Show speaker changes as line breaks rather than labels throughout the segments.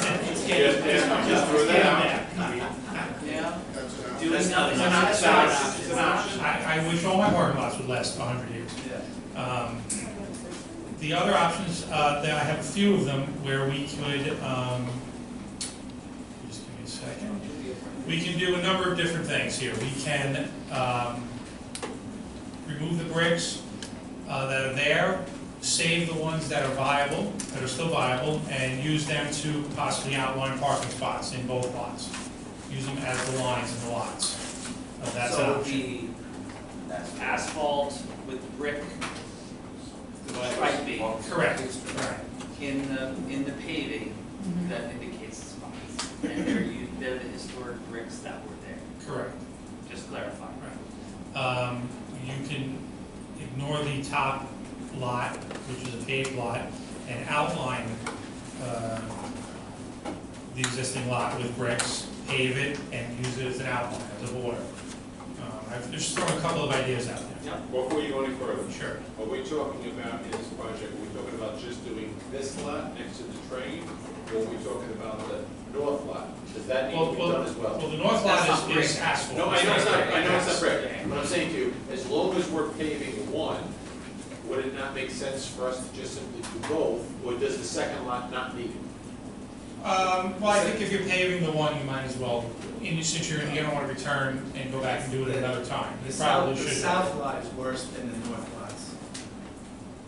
Just, just- just throw that out. I mean,
Yeah.
That's an option.
Doing nothing.
It's an option.
It's not an option.
It's an option.
I, I wish all my parking lots would last hundred years.
Yeah.
Um, The other options, uh, that I have a few of them where we could, um, just give me a second. We can do a number of different things here. We can, um, remove the bricks, uh, that are there, save the ones that are viable, that are still viable, and use them to possibly outline parking spots in both lots. Use them as the lines in the lots. Uh, That's an
So
option.
the asphalt with brick striping
Correct, correct.
in the, in the paving that indicates spots. And they're, u- they're the historic bricks that were there,
Correct.
just clarifying.
Um, You can ignore the top lot, which is a paved lot, and outline uh, the existing lot with bricks, pave it, and use it as an outline, as a border. Um, I've just thrown a couple of ideas out there.
Before you go any further,
Sure.
what we're talking about in this project, we're talking about just doing this lot next to the train, or we're talking about the north lot? Does that need to
Well,
be done as
well,
well?
the north
That's
lot
not
is- is
brick.
asphalt.
No, I know it's not, I know it's not
Yeah.
brick. What I'm saying to you, as long as we're paving one, would it not make sense for us to just simply do both? Or does the second lot not need it?
Um, Well, I think if you're paving the one, you might as well, and since you're, you don't want to return and go back and do it another time.
The
You
south,
probably
the
should.
south lot is worse than the north lots.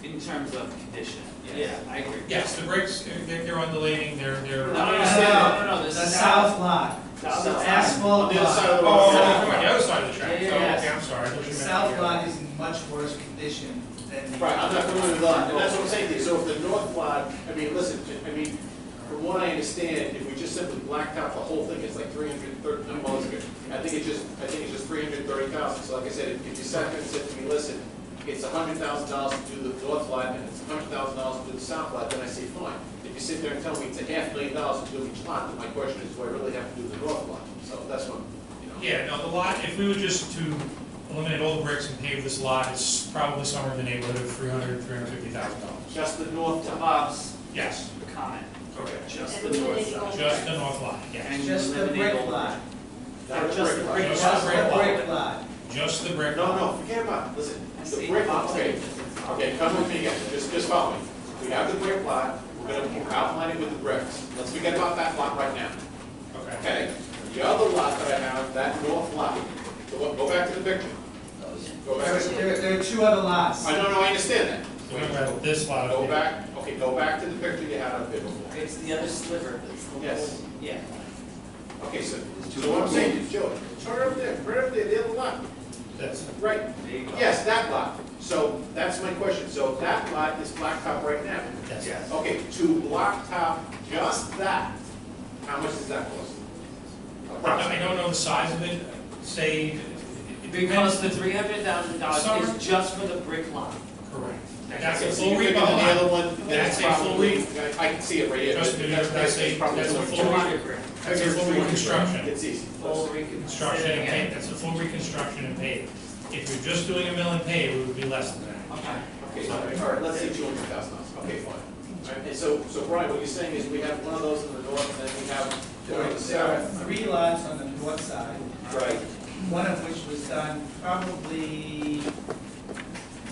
In terms of condition, yeah,
Yes.
I agree.
Yes, the bricks, they're, they're undulating, they're, they're.
No, no, no, no, no,
The
this is
south lot,
South
the
lot.
asphalt
On the other side of
lot.
the
Oh,
road.
oh, oh, on the other side of the track,
Yeah,
so,
yeah, yeah.
okay, I'm sorry. I thought you
The
meant
south
the-
lot is in much worse condition than the.
Right, I'm not familiar with that, and that's what I'm saying to you, so if the north lot, I mean, listen, I mean, from what I understand, if we just simply blacktop the whole thing, it's like three hundred thirty, no, well, it's good. I think it's just, I think it's just three hundred thirty thousand, so like I said, if if you sat there and said to me, listen, it's hundred thousand dollars to do the north lot, and it's hundred thousand dollars to do the south lot, then I say, fine. If you sit there and tell me it's a half million dollars to do each lot, then my question is, do I really have to do the north lot? So that's what, you know.
Yeah, no, the lot, if we were just to eliminate all the bricks and pave this lot, it's probably somewhere in the neighborhood of three hundred, three hundred fifty thousand dollars.
Just the north
To
lot.
Bob's
Yes,
comment,
correct.
just the north side.
Just the north lot, yeah.
And
Just the
eliminate all
brick
the-
lot,
Not a
Just
brick
the
lot.
brick
Just
just
brick
the
lot.
brick lot.
Just the brick
No,
lot.
no, forget about, it. listen,
I
the
see
brick,
Bob's
okay,
saying-
okay, come with me again, just, just follow me. We have the brick lot, we're gonna outline it with the bricks, let's forget about that lot right now,
Okay.
okay? The other lot that I have, that north lot, go, go back to the picture. Go
There,
back to the,
there- there are two other lots.
I don't know, I understand
So we're
that.
gonna have this lot. up
Go
here.
back, okay, go back to the picture you had up there before.
It's the other sliver, it's the whole.
Yes.
Yeah.
Okay, so, so what I'm saying is, Joe, turn over there, right over there, the other lot,
This.
right,
There you go.
yes, that lot. So, that's my question, so that lot is blacktop right now.
Yes.
Yes.
Okay, to blacktop just that, how much does that cost?
I
Approximately.
don't know the size of it, say. it- it depends.
Because the three hundred thousand dollars
Summer-
is just for the brick lot.
Correct. That's a
Okay, so
full
you
read
think
of the
of
lot.
other one, then it's
That's a full
probably-
re-
I I can see it right here.
Trust me, that's a- that's a full
Two
re-
hundred grand.
That's a full reconstruction.
It's easy.
Full reconstruction.
Construction and pave, that's a full reconstruction and pave. If you're just doing a mill and pave, it would be less than that.
Okay.
Okay, so, all right, let's say two hundred thousand dollars, okay, fine. All right, And so, so Brian, what you're saying is we have one of those in the north, and then we have one in the
There are
south.
three lots on the north side,
Right.
one of which was done probably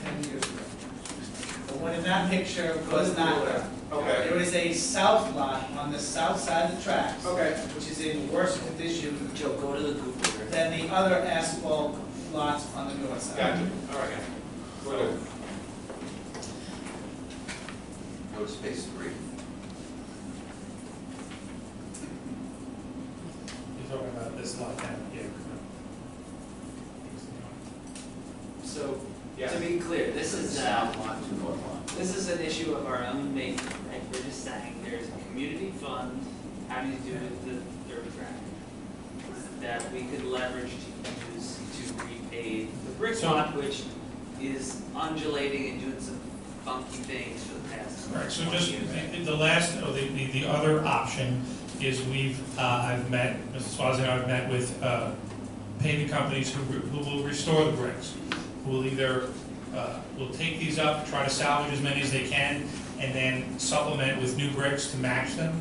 ten years ago. The one in that picture was not done.
Okay,
There was a south lot on the south side of the tracks,
okay.
which is in worse condition
Joe, go to the Google. Earth.
than the other asphalt lots on the north side.
Gotcha, all right. We're good.
Go to space three.
You're talking about this lot down here.
So,
Yeah.
to be clear, this is, uh,
one, two, one, one.
this is an issue of our own making, right? We're just saying there's a community fund, how do you do with the third grant? That we could leverage to use to repay the brick
So-
lot, which is undulating and doing some funky things for the past.
Right, so
20
just,
years.
the- the last, oh, the, the the other option is we've, uh, I've met, Mrs. Swazi and I have met with uh, paving companies who, re- who will restore the bricks, who will either, uh, will take these up, try to salvage as many as they can, and then supplement with new bricks to match them,